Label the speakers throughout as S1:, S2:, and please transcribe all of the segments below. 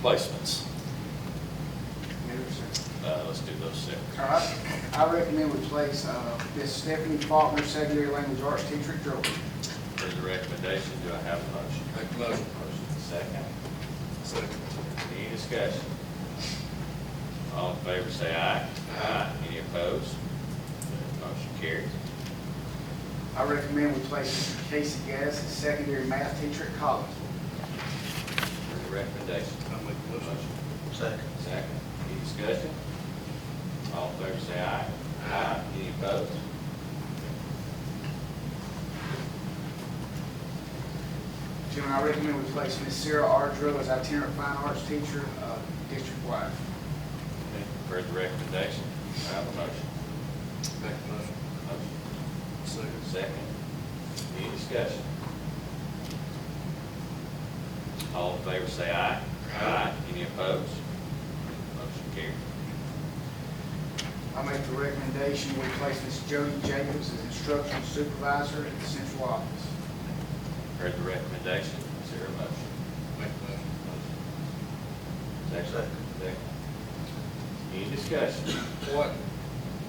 S1: placements.
S2: Anderson.
S1: Uh, let's do those six.
S2: All right, I recommend we place uh, Miss Stephanie Faulkner, secondary language arts teacher at Jordan.
S1: There's a recommendation, do I have a motion?
S3: Make a motion.
S1: Motion second.
S3: Second.
S1: Any discussion? All in favor, say aye. Aye. Any opposed? Motion carries.
S2: I recommend we place Casey Gass, as secondary math teacher at Collinsville.
S1: There's a recommendation.
S3: I'll make a motion.
S4: Second.
S1: Second. Any discussion? All in favor, say aye. Aye. Any opposed?
S2: Gentlemen, I recommend we place Miss Sarah Ardro as itinerant fine arts teacher, uh, district-wide.
S1: Heard the recommendation, do I have a motion?
S3: Make a motion.
S1: Motion
S3: Second.
S1: second. Any discussion? All in favor, say aye. Aye. Any opposed? Motion carries.
S2: I make the recommendation we place Miss Jody Jacobs as instructional supervisor at the central office.
S1: Heard the recommendation, is there a motion?
S3: Make a motion.
S1: Second. Second. Any discussion?
S3: What,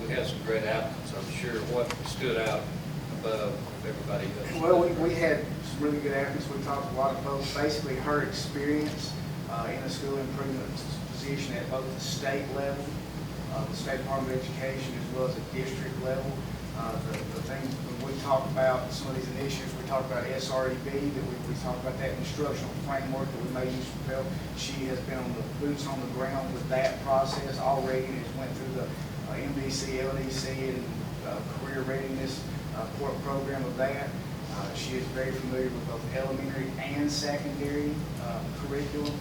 S3: we had some great applicants, I'm sure, what stood out above everybody else?
S2: Well, we, we had some really good applicants, we talked to a lot of folks, basically her experience uh, in a school improvement position at both the state level, uh, the State Department of Education, as well as the district level. Uh, The the thing, when we talked about some of these initiatives, we talked about SREB, that we, we talked about that instructional framework that we may use for Pell. She has been on the boots on the ground with that process already, and has went through the uh, MDC, LDC, and uh, career readiness uh, pro- program of that. Uh, She is very familiar with both elementary and secondary uh, curriculum.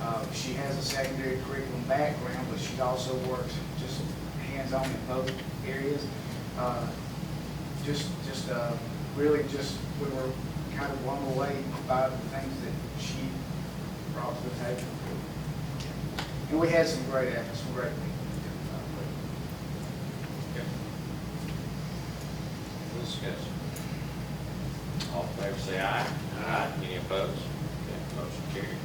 S2: Uh, She has a secondary curriculum background, but she also works just hands-on in both areas. Uh, Just, just, uh, really just, we were kind of blown away by the things that she brought to the table. And we had some great efforts, some great people.
S1: Any Discussion. All in favor, say aye. Aye. Any opposed? Okay, Motion carries.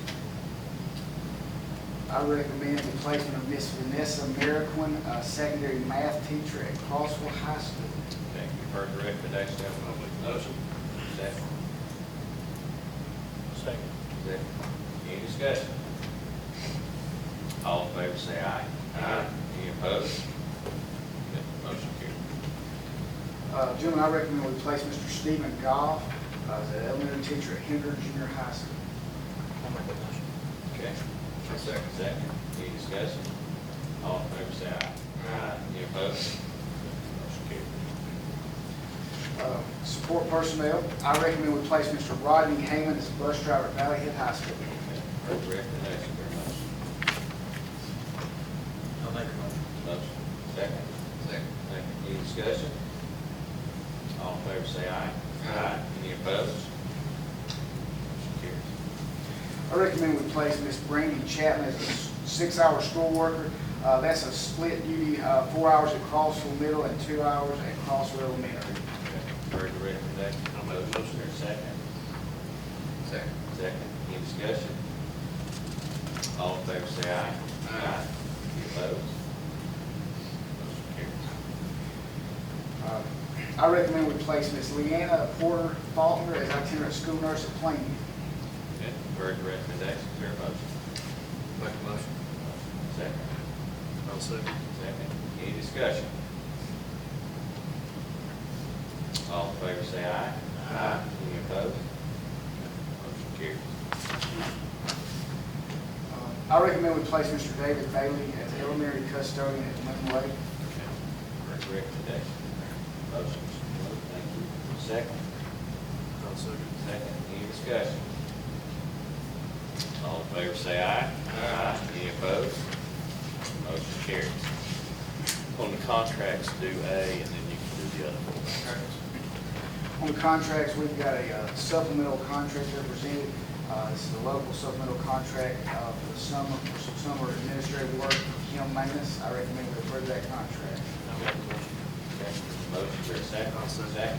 S2: I recommend the placement of Miss Vanessa Merrickwin, a secondary math teacher at Crossville High School.
S1: Thank you, heard the recommendation, have a moment. Motion. Second.
S4: Second.
S1: Second. Any discussion? All in favor, say aye. Aye. Any opposed? Okay, Motion carries.
S2: Uh, Gentlemen, I recommend we place Mr. Stephen Goff uh, as an elementary teacher at Henry Junior High School.
S4: I'll make a motion.
S1: Okay.
S3: Second.
S1: Second. Any discussion? All in favor, say aye. Aye. Any opposed? Motion carries.
S2: Uh, Support personnel, I recommend we place Mr. Rodney Heyman as a bus driver at Valley Head High School.
S1: Okay, Heard the recommendation, very much.
S4: I'll make a motion.
S1: Motion. Second.
S3: Second.
S1: Second. Any discussion? All in favor, say aye. Aye. Any opposed? Motion carries.
S2: I recommend we place Miss Brandy Chapman as a s- six-hour school worker. Uh, That's a split duty, uh, four hours at Crossville Middle and two hours at Crossville Elementary.
S1: Heard the recommendation. I'll make a motion. There's a second.
S3: Second.
S1: Second. Any discussion? All in favor, say aye.
S3: Aye.
S1: Any opposed? Motion carries.
S2: Uh, I recommend we place Miss Leanna Porter Faulkner as itinerant school nurse at Plainview.
S1: Okay, Heard the recommendation. Is there a motion?
S3: Make a motion.
S1: Second.
S3: I'll second.
S1: Second. Any discussion? All in favor, say aye. Aye. Any opposed? Motion carries.
S2: Uh, I recommend we place Mr. David Bailey as elementary custodian at Lynn Lake.
S1: Okay, Heard the recommendation. Motion, Mr. Wood, thank you. Second.
S3: I'll second.
S1: Second, any discussion? All in favor, say aye. Aye. Any opposed? Motion carries. On the contracts, do A, and then you can do the other one.
S2: On the contracts, we've got a uh, supplemental contract represented. Uh, This is a local supplemental contract uh, for the summer, for some summer administrative work, Kim Manus. I recommend we approve that contract.
S1: Okay, Motion for a second.
S3: I'll second.
S1: Second.